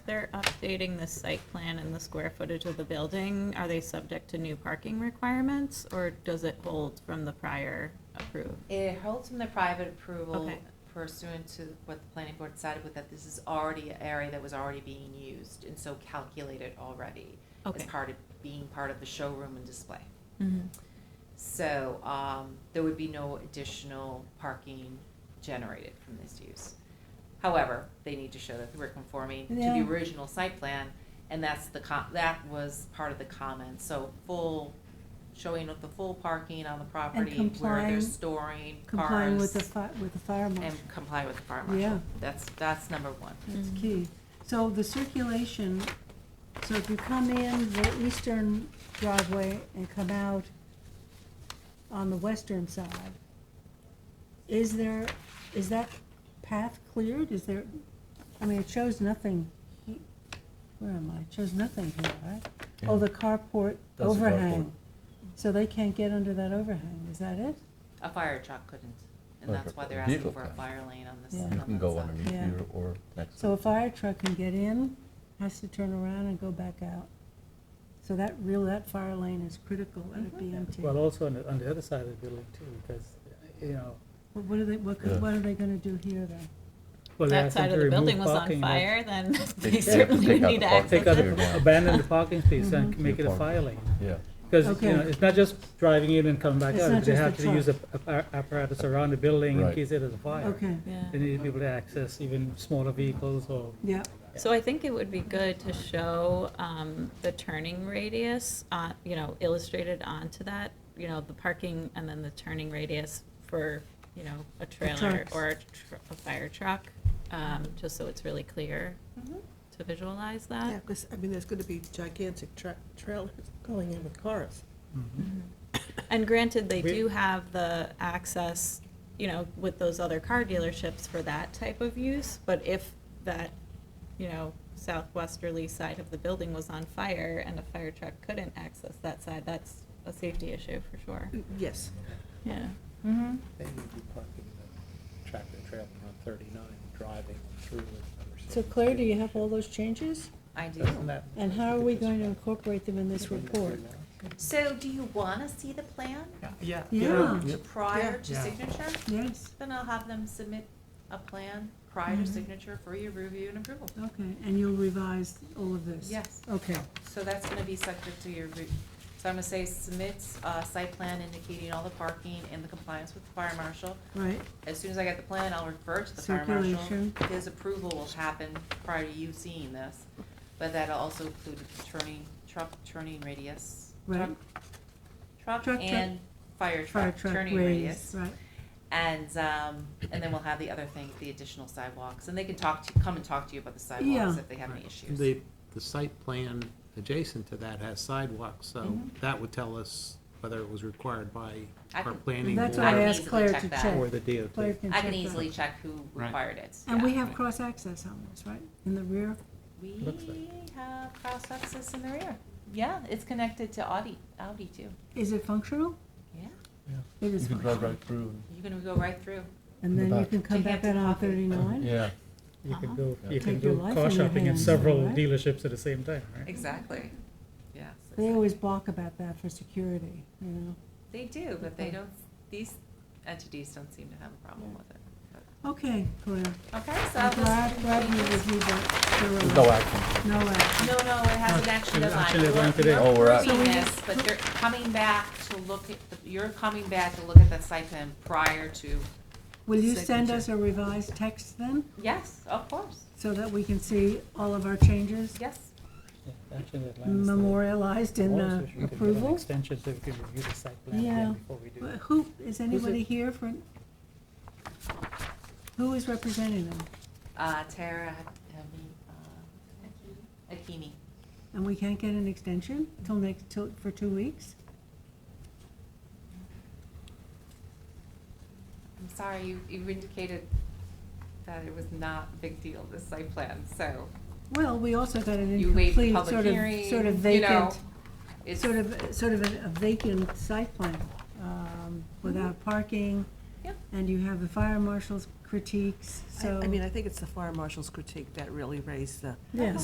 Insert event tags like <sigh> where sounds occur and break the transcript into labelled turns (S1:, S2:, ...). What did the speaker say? S1: they're updating the site plan and the square footage of the building, are they subject to new parking requirements, or does it hold from the prior approved?
S2: It holds from the private approval
S1: Okay.
S2: pursuant to what the planning board decided with that this is already an area that was already being used and so calculated already as
S1: Okay.
S2: part of, being part of the showroom and display.
S1: Mhm.
S2: So, um, there would be no additional parking generated from this use. However, they need to show that we're conforming to the
S3: Yeah.
S2: original site plan, and that's the com, that was part of the comment, so full, showing of the full parking on the property, where they're
S3: complying-
S2: storing cars.
S3: Complying with the fi, with the fire marshal,
S2: And comply with the fire marshal.
S3: Yeah.
S2: That's, that's number one.
S3: that's key. So the circulation, so if you come in the eastern driveway and come out on the western side, is there, is that path cleared? Is there, I mean, it shows nothing. he- Where am I? It shows nothing here, right? Oh,
S4: Yeah.
S3: the carport
S4: That's the carport.
S3: overhang. So they can't get under that overhang, is that it?
S2: A fire truck couldn't, and
S4: Or
S2: that's why they're
S4: a
S2: asking
S4: vehicle
S2: for a
S4: can.
S2: fire lane on this.
S3: Yeah.
S2: on
S4: You can
S2: that
S4: go
S2: side.
S4: underneath
S3: Yeah.
S4: here or next
S3: So
S4: to
S3: a
S4: it.
S3: fire truck can get in, has to turn around and go back out. So that real, that fire lane is critical, let it be empty.
S5: Well,
S3: But
S5: also on the, on the other side of the building too, because, you know,
S3: what are they, what, could-
S4: Yeah.
S3: what are they gonna do here then?
S5: well, they
S1: That
S5: asked them
S1: side
S5: to
S1: of the building
S5: remove
S1: was on
S5: parking. lot.
S1: fire,
S5: <laughs>
S1: then <laughs>
S4: They- they
S1: they
S4: have to
S1: certainly
S4: take
S1: would
S4: out
S1: need
S4: the
S1: to
S4: parking.
S1: access
S5: Take out,
S1: it.
S4: Yeah.
S5: the- abandon the parking space and make it a
S4: Parking.
S5: fire lane.
S4: Yeah,
S5: Because, you know,
S3: Mm-hmm. Okay.
S5: it's not just driving in and coming back
S3: It's
S5: out,
S3: not
S5: but they
S3: just
S5: have
S3: the
S5: to use a a- a- apparatus around the building in
S4: Right.
S5: case there is a fire.
S3: Okay,
S1: Yeah.
S5: They need people to access even smaller vehicles or,
S3: yeah,
S1: So I think it would be good to show um, the turning radius, uh, you know, illustrated onto that, you know, the parking and then the turning radius for, you know, a trailer
S3: trucks.
S1: or a tr- a fire truck, um, just so it's really clear to visualize
S6: Yeah,
S1: that.
S6: because, I mean, there's gonna be gigantic tra- trailers going in with cars.
S5: mm-hmm.
S1: And granted, they
S5: We-
S1: do have the access, you know, with those other car dealerships for that type of use, but if that, you know, southwesterly side of the building was on fire and a fire truck couldn't access that side, that's a safety issue for sure.
S6: Yes.
S1: Yeah.
S2: Mm-hmm.
S7: They need to be parking the tractor trailer on thirty-nine, driving through it. under
S3: so
S7: 72.
S3: Claire, do you have all those changes?
S2: I do.
S7: Doesn't that-
S3: And how are we going to incorporate them in this report?
S2: So do you wanna see the plan
S7: Yeah.
S3: Yeah,
S2: prior to
S5: Yeah.
S2: signature?
S3: yes,
S2: Then I'll have them submit a plan prior
S3: Mm-hmm.
S2: to signature for your review and approval.
S3: okay, and you'll revise all of this?
S2: Yes.
S3: Okay,
S2: So that's gonna be subject to your, re- so I'm gonna say submit a site plan indicating all the parking and the compliance with the fire marshal.
S3: right,
S2: As soon as I get the plan, I'll refer to the fire marshal.
S3: Circulation.
S2: His approval will happen prior to you seeing this, but that'll also include the turning, truck turning radius.
S3: Right.
S2: Truck
S3: Truck,
S2: truck
S3: truck.
S2: and fire
S3: fire
S2: truck
S3: truck
S2: turning
S3: raise,
S2: radius.
S3: right,
S2: And, um, and then we'll have the other thing, the additional sidewalks, and they can talk to, come and talk to you about the sidewalks
S3: Yeah.
S2: if they have any issues.
S7: The, the site plan adjacent to that has sidewalks, so
S3: Mm-hmm.
S2: Mhm.
S7: that would tell us whether it was required by
S2: I
S7: our
S2: can-
S7: planning
S3: That's
S2: I
S3: what I
S2: can
S7: board
S3: asked
S2: easily
S3: Claire
S2: check
S3: to
S2: that.
S3: check.
S7: or the
S3: Claire
S7: DOT.
S3: can
S2: I can
S3: check that.
S2: easily check who
S7: Right.
S2: required it.
S3: And
S2: yeah.
S3: we have
S7: Right.
S3: cross-access on this, right, in the rear?
S2: We
S7: Looks like-
S2: have cross access in the rear. Yeah, it's connected to Audi, Audi too.
S3: Is it functional?
S2: Yeah,
S3: It is
S4: you can drive
S3: functional.
S4: right through.
S2: you're gonna go right through.
S3: And
S4: In the
S3: then you
S4: back.
S3: can come
S2: To
S3: back out
S2: Hampton
S3: on
S2: Coffee.
S3: thirty-nine?
S4: Yeah,
S5: you
S1: Uh-huh.
S5: can go,
S4: Yeah.
S5: you can
S3: Take your
S5: go
S3: life
S5: car
S3: in your
S5: shopping in
S3: hands,
S5: several
S3: right?
S5: dealerships at the same time, right?
S2: Exactly. Yeah.
S3: They always balk about that for security, you know?
S2: They do, but they don't, these entities don't seem to have a problem with it.
S3: Okay, Claire.
S2: Okay, so
S3: I'm glad, glad you
S2: I'll just.
S3: reviewed that
S4: there's no
S3: thoroughly.
S4: action.
S3: No action.
S2: No, no, it has an action
S5: There's
S2: deadline.
S5: actually one today.
S4: Oh, we're at-
S2: You're approving this, but they're coming back to look at, the- you're coming back to look at that site plan prior to,
S3: Will you send
S2: Signature.
S3: us a revised text then,
S2: yes, of course,
S3: so that we can see all of our changes
S2: yes.
S5: Yeah, actually, that line is there.
S3: memorialized in
S5: Also,
S3: uh,
S5: we could get an
S3: approval?
S5: Extension so we can review the site plan
S3: Yeah.
S5: again before we do.
S3: But
S5: it.
S3: Who, is anybody here for? Who is representing them?
S2: Uh, Tara, Hami, uh, Akimi.
S3: And we can't get an extension till next, till, for two weeks?
S2: I'm sorry, you, you indicated that it was not a big deal, this site plan, so
S3: Well, we also got an
S2: you waived the
S3: incomplete,
S2: public
S3: sort
S2: hearing,
S3: of, sort of
S2: you know.
S3: vacant,
S2: It's,
S3: sort of, sort of a a vacant site plan, um, without parking.
S2: Mm-hmm. Yeah.
S3: And you have the fire marshal's critiques,
S6: I
S3: so.
S6: I mean, I think it's the fire marshal's critique that really raised the
S3: Yes.